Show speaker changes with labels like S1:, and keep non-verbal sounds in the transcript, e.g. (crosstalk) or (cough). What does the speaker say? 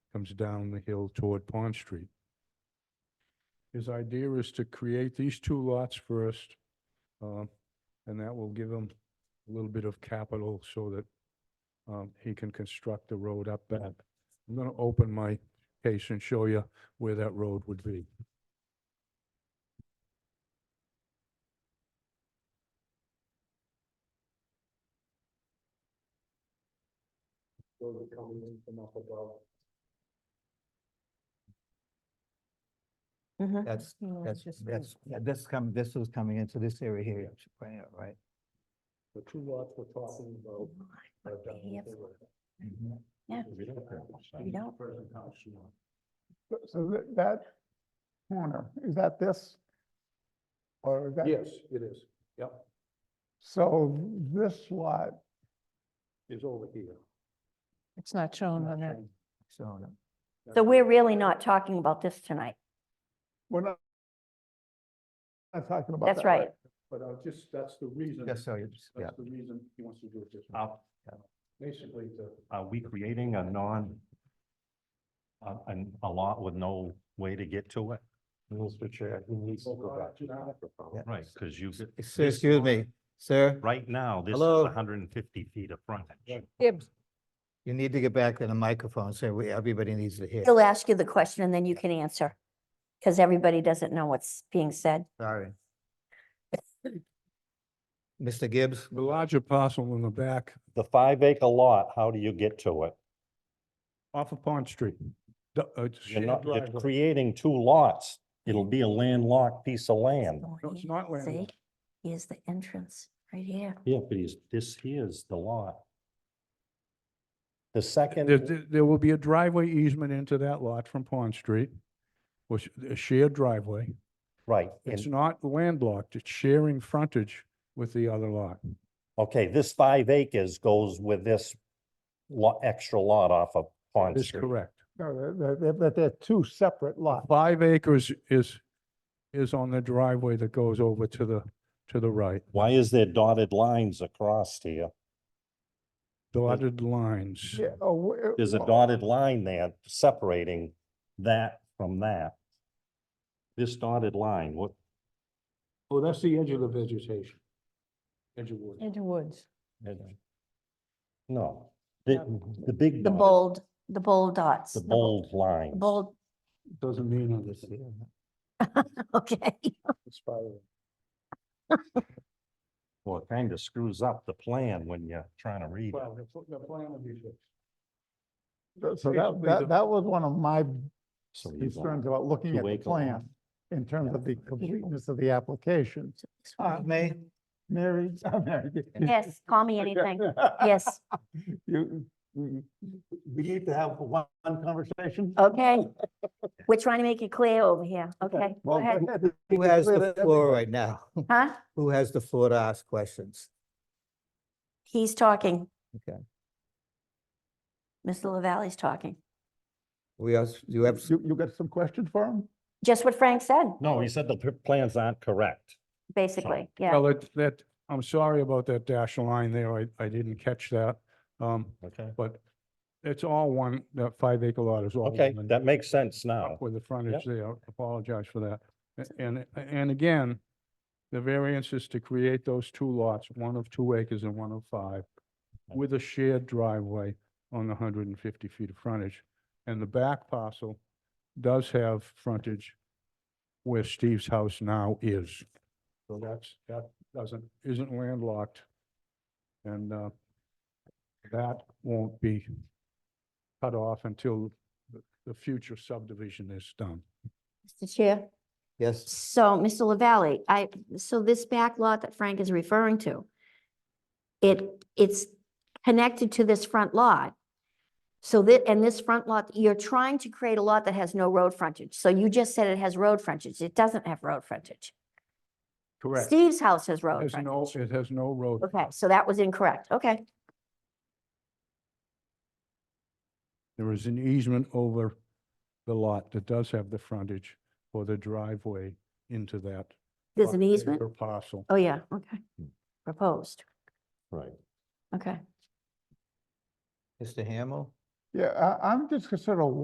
S1: comes down the hill toward Pond Street. His idea is to create these two lots first, uh, and that will give him a little bit of capital so that um, he can construct the road up back. I'm gonna open my case and show you where that road would be.
S2: Mhm.
S3: That's,
S2: No,
S3: that's,
S2: just me.
S3: that's, yeah, this come, this was coming into this area here, I should point out, right?
S1: The two lots we're talking about.
S2: are
S4: uh,
S2: down the hill. Yeah. We don't.
S4: Th- So that, that corner, is that this? Or is that?
S1: Yes, it is. Yep,
S4: So this lot,
S1: is over here.
S5: It's not shown on that.
S3: So, no.
S2: So we're really not talking about this tonight.
S4: we're not not talking about that.
S2: That's right.
S1: But I just, that's the reason.
S3: just so you, just- yeah.
S1: That's the reason he wants to do it this way.
S6: Are,
S1: Basically, the,
S6: are uh, we creating a non, a, an- a lot with no way to get to it?
S7: Mr. Chair, he needs to go back to the microphone.
S6: Right, because you, could-
S3: Excuse excuse me, sir,
S6: right now, this is
S3: Hello?
S6: hundred and fifty feet of frontage.
S5: Gibbs,
S3: you need to get back to the microphone, so we, everybody needs to hear.
S2: He'll ask you the question and then you can answer. Because everybody doesn't know what's being said.
S3: Sorry. Mr. Gibbs,
S1: the larger parcel in the back
S6: The five acre lot, how do you get to it?
S1: off of Pond Street. The- uh, it's a
S6: You're
S1: shared
S6: not, you're
S1: driveway.
S6: creating two lots. It'll be a landlocked piece of land.
S2: Going
S1: No, it's
S2: in.
S1: not
S2: See,
S1: landlocked.
S2: here's the entrance right here.
S6: Yeah, but he's, this here is the lot. The
S1: There,
S6: second,
S1: there- there will be a driveway easement into that lot from Pond Street, which, a shared driveway.
S6: right,
S1: It's
S6: and,
S1: not landlocked, it's sharing frontage with the other lot.
S6: okay, this five acres goes with this lot, extra lot off of Pond
S1: That's
S6: Street.
S1: correct.
S4: No, they're- they're, they're- but they're two separate lots.
S1: Five acres is, is on the driveway that goes over to the, to the right.
S6: Why is there dotted lines across here?
S1: Dotted lines.
S4: Yeah, oh, w-
S6: There's a
S4: well,
S6: dotted line there separating that from that. This dotted line, what,
S1: Oh, that's the edge of the vegetation. Edge of wood.
S5: into woods.
S6: no, the, the big.
S2: The
S6: dot,
S2: bold, the bold dots.
S6: The
S2: the bol-
S6: bold line.
S2: Bold, (laughs)
S1: Doesn't mean anything.
S2: okay.
S6: Well, it kind of screws up the plan when you're trying to read it.
S1: Well, the pl- the plan will be fixed.
S4: th- So that,
S1: basically the-
S4: that, that was one of my
S6: So you
S4: concerns
S6: want-
S4: about looking at the
S6: two-acre lot.
S4: plan in terms of the completeness of the application.
S3: uh, May,
S4: Mary, (laughs) Mary, you-
S2: Yes, call me anything. Yes,
S4: (laughs) You, we we need to have one one conversation.
S2: okay. We're trying to make it clear over here. (laughs) Okay, go
S4: Well, (laughs)
S2: ahead.
S3: who has the floor right now?
S2: Huh?
S3: Who has the floor to ask questions?
S2: He's talking.
S3: Okay.
S2: Mr. LaValle's talking.
S3: We also, you have,
S4: You, you got some questions for him?
S2: Just what Frank said,
S6: No, he said the p- plans aren't correct.
S2: basically. Yeah.
S1: Well, it, that, I'm sorry about that dash line there. I, I didn't catch that. Um,
S6: Okay.
S1: but it's all one, that five acre lot is all.
S6: Okay,
S1: one.
S6: that makes sense now.
S1: up with the frontage there. I Apologize for that. A- And, and again, the variance is to create those two lots, one of two acres and one of five, with a shared driveway on the hundred and fifty feet of frontage. And the back parcel does have frontage where Steve's house now is. So that's, that doesn't, isn't landlocked. And, uh, that won't be cut off until the future subdivision is done.
S2: Mr. Chair.
S3: yes,
S2: So, Mr. LaValle, I, so this back lot that Frank is referring to, it, it's connected to this front lot. So that, and this front lot, you're trying to create a lot that has no road frontage. So you just said it has road frontage. It doesn't have road frontage. Steve's house has road
S1: Has no,
S2: frontage.
S1: it has no road.
S2: Okay, so that was incorrect. Okay.
S1: There is an easement over the lot that does have the frontage for the driveway into that.
S2: There's an
S1: five-acre
S2: easement.
S1: Parcel.
S2: Oh, yeah, okay. Proposed.
S6: Right.
S2: Okay.
S3: Mr. Hamel?
S4: Yeah, I, I'm just sort of